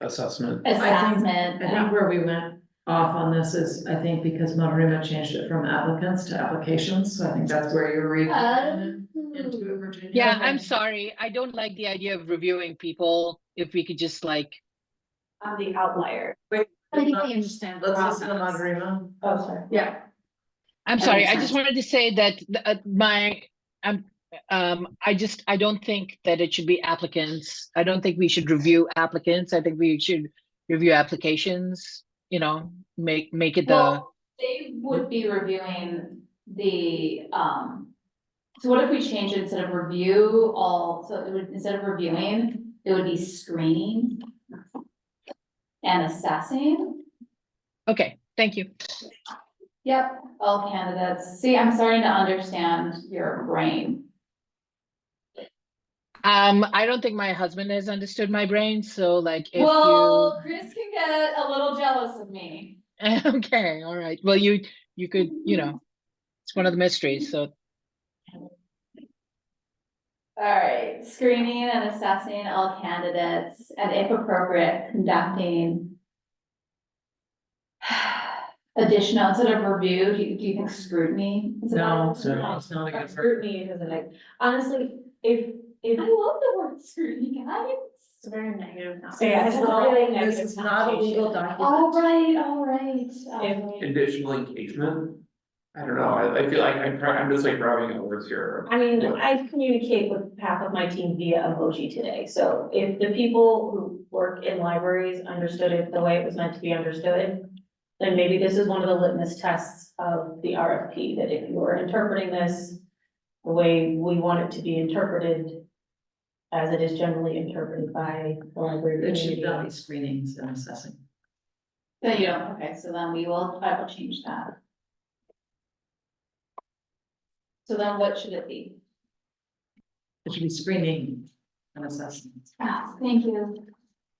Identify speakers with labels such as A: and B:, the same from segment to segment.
A: assessment.
B: assessment.
C: I
B: and-
C: think where we went off on this is, I think because Monterey changed it from applicants to applications, so I think that's where you're reading. Into
B: Oh.
C: Virginia.
D: Yeah, I'm sorry. I don't like the idea of reviewing people. If we could just like,
B: I'm the outlier.
E: I think they understand. the
C: Let's listen to
E: process.
C: Monterey
B: Oh, sorry.
C: Yeah.
D: I'm
E: That
D: sorry,
E: makes
D: I just
E: sense.
D: wanted to say that the- uh, my, I'm, um, I just, I don't think that it should be applicants. I don't think we should review applicants. I think we should review applications, you know, make, make it the,
B: Well, they would be reviewing the, um. So what if we change it instead of review all, so it would, instead of reviewing, it would be screening. And assessing,
D: okay, thank you.
B: yep, all candidates, see, I'm starting to understand your brain.
D: Um, I don't think my husband has understood my brain, so like if you,
B: Well, Chris can get a little jealous of me.
D: okay, all right. Well, you, you could, you know, it's one of the mysteries, so
B: Alright, screening and assessing all candidates and if appropriate, conducting. Additional, instead of review, do you, do you think scrutiny? is a
C: No,
B: better-
A: No.
C: it's not a good word.
E: Scrutiny isn't like, honestly, if,
B: I
E: if,
B: love the word scrutiny, guys.
E: it's very negative. now.
C: Yeah,
E: It's
C: it's
E: not-
C: really
E: negative
C: This is not a legal
E: connotation.
C: document.
B: Alright, alright, alright.
A: Additional engagement? I don't know, I, I feel like I'm, try- I'm just like grabbing at words here.
E: I mean, I communicate with half of my team via emoji today, so if the people who work in libraries understood it the way it was meant to be understood, then maybe this is one of the litmus tests of the RFP, that if you are interpreting this the way we want it to be interpreted, as it is generally interpreted by the library
C: It should not be
E: community.
C: screenings and assessing.
B: So you don't, okay, so then we will, I will change that. So then what should it be?
C: It should be screening and assessing.
B: Ah, thank you.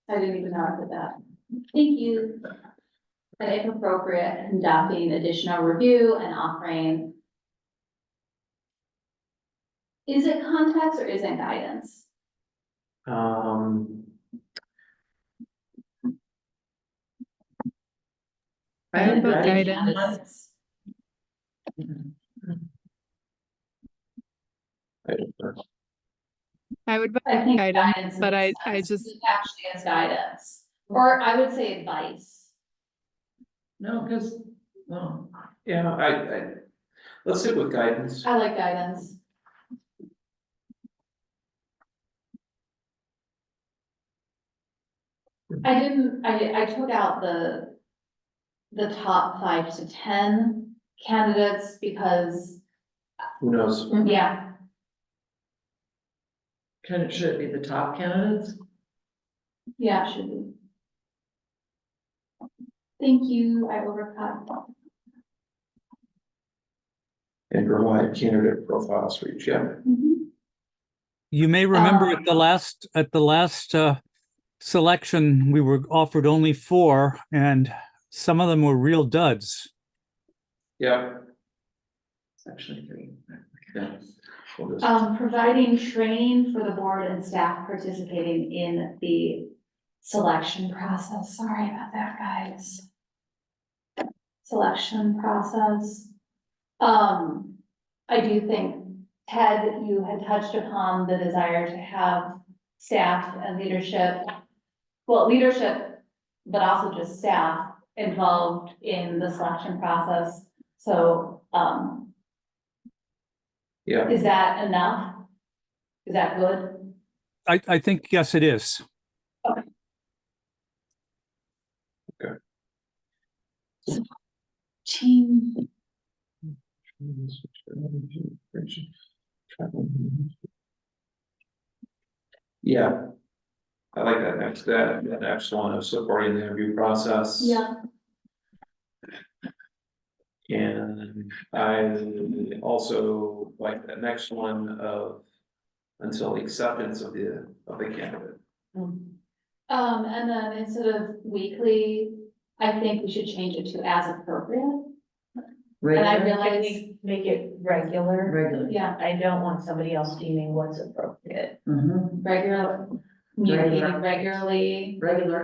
B: I didn't even know I put that. Thank you. And if appropriate, conducting additional review and offering. Is it context or is it guidance?
A: Um,
C: I would put
B: Guidance.
A: I don't know.
F: I would, vote
B: I think
F: Guidance,
B: guidance.
F: but I-
B: makes
F: I
B: sense.
F: just-
B: It Actually is guidance, or I would say advice.
C: No, because, well,
A: yeah, I, I, let's sit with guidance.
B: I like guidance. I didn't, I, I took out the, the top five to ten candidates because,
A: Who knows?
B: yeah,
C: can, it should it be the top candidates?
B: yeah, it should be. Thank you, I overcut.
A: And provide candidate profiles for each, yeah.
B: Mhm.
G: You may remember
B: Um,
G: at the last, at the last uh, selection, we were offered only four and some of them were real duds.
A: Yeah.
C: It's actually three.
A: yeah. We'll just-
B: Um, providing training for the board and staff participating in the selection process. Sorry about that, guys. Selection process. Um, I do think, Ted, you had touched upon the desire to have staff and leadership, well, leadership, but also just staff involved in the selection process. So, um,
A: Yeah,
B: is that enough? Is that good?
G: I, I think, yes, it is.
B: Team.
A: Yeah. I like that next, that, that next one of supporting the interview process.
B: Yeah,
A: And I also like that next one of until the acceptance of the, of the candidate.
B: um, and then instead of weekly, I think we should change it to as appropriate. And I
C: Regular,
E: I
B: realize,
E: think make it regular.
C: regular.
B: yeah,
E: I don't want somebody else deeming what's appropriate.
C: Mhm.
B: regular, meeting
C: Regular.
B: regularly.
C: Regular